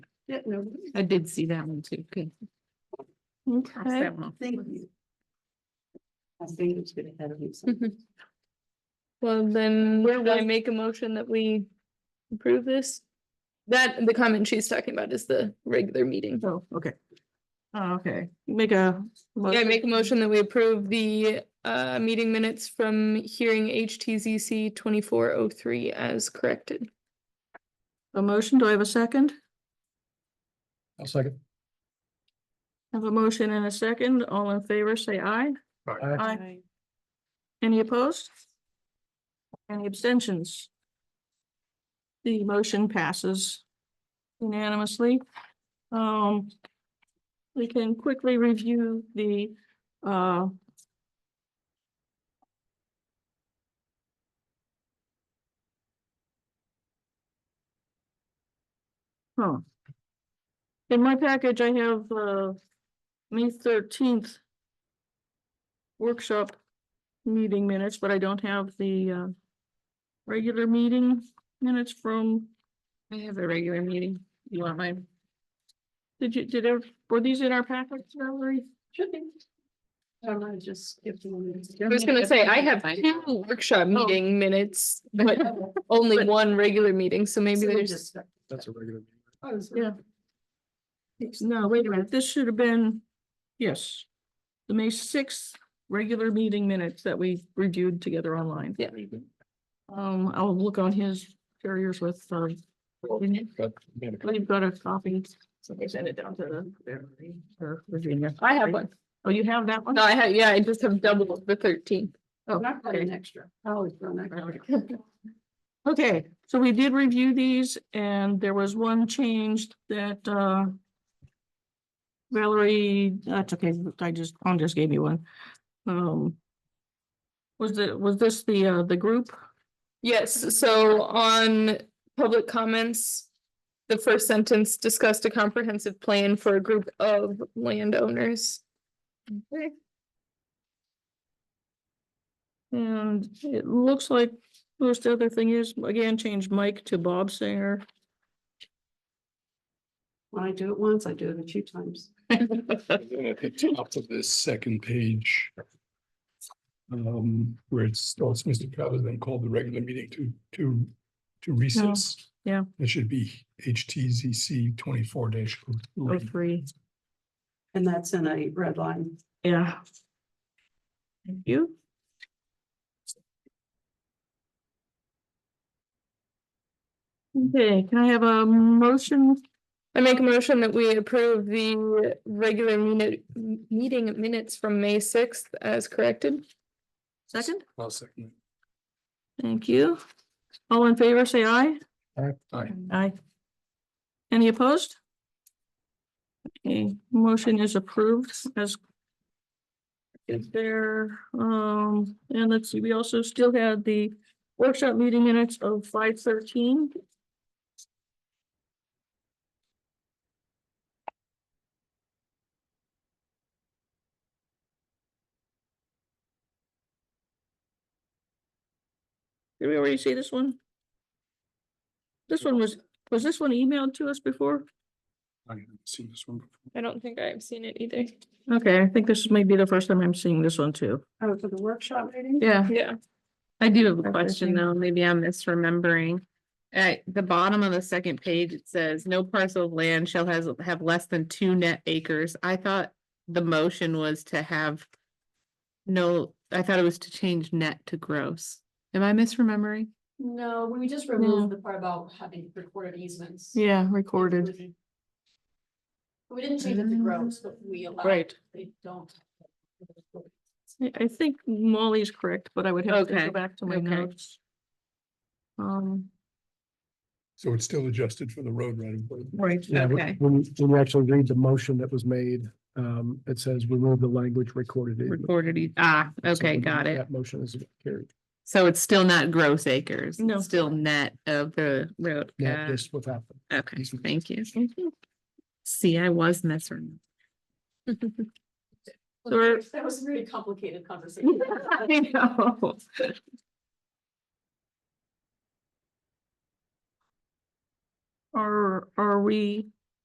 Yeah, no, I did see that one too. Good. Cross Okay. that one off. thank you. I think it's good ahead of you. so- Mhm. Well, then Where can I was- make a motion that we approve this? That, the comment she's talking about is the regular meeting. Oh, okay. Oh, okay. Make a. Yeah, I motion. make a motion that we approve the uh meeting minutes from hearing HTZC twenty-four oh three as corrected. A motion. Do I have a second? I'll second. I Have a motion and a second. All in favor, say aye. Aye. Any opposed? Any abstentions? The motion passes unanimously. Um, we can quickly review the, uh, huh. In my package, I have, uh, May thirteenth workshop meeting minutes, but I don't have the uh. Regular meeting minutes from, I have a regular meeting. You want mine? did you, did, ev- were these in our packets, Valerie? Should be. I'm gonna just skip the one. I was gonna say, I have two workshop meeting minutes, but only But- one regular meeting, so maybe there's. That's a regular. meeting. Oh, Yeah. No, wait a minute, this should have been, yes. The May sixth regular meeting minutes that we reviewed together online. Yeah. Um, I'll look on his carriers with, uh, But, man, we've got a copy, so they send it down to the Valerie or Virginia. I have one. Oh, you have that one? No, I have, yeah, I just have double the thirteenth. Oh, Not got okay. an extra. I always run extra. Okay, so we did review these and there was one change that, uh. Valerie, that's okay, I just, Tom just gave me one. Um. Was the, was this the, uh, the group? Yes, so on public comments, the first sentence discussed a comprehensive plan for a group of landowners. And it looks like most other thing is, again, change Mike to Bob Singer. When I do it once, I do it a few times. And then At the top of this second page. Um, where it starts, Mr. Travers then called the regular meeting to, to, to recess. Oh, yeah. It should be HTZC twenty-four dash. Oh, three, And that's in a red line. yeah. Thank you. Okay, can I have a motion I make a motion that we approve the regular minute, m- meeting minutes from May sixth as corrected. Second, I'll second. thank you. All in favor, say aye. Aye. Aye. Aye. Any opposed? Okay, motion is approved as. Is there, um, and let's see, we also still had the workshop meeting minutes of five thirteen. Did we already see this one? This one was was this one emailed to us before? I haven't seen this one before. I don't think I've seen it either. Okay, I think this may be the first time I'm seeing this one too. Oh, for the workshop meeting? Yeah. Yeah, I do have Or a question fishing. though, maybe I'm misremembering. At the bottom of the second page, it says, no parcel of land shall has, have less than two net acres. I thought the motion was to have. No, I thought it was to change net to gross. Am I misremembering? No, we just No. removed the part about having recorded easements. Yeah, recorded. We didn't change it to gross, but we allowed. Right. They don't. I- I think Molly's correct, but I would have to Okay, go back to my okay. notes. Um, So it's still adjusted for the road right of way. right, Yeah, when- Okay. when, when you actually read the motion that was made, um, it says remove the language recorded. in." Recorded, e- ah, So okay, got it. That motion is carried, So it's still not gross acres. it's No. Still net of the road. not Got- just without them. Okay, easement. thank you. See, I was misremembering. Or- That was a really complicated conversation. I know. are, are we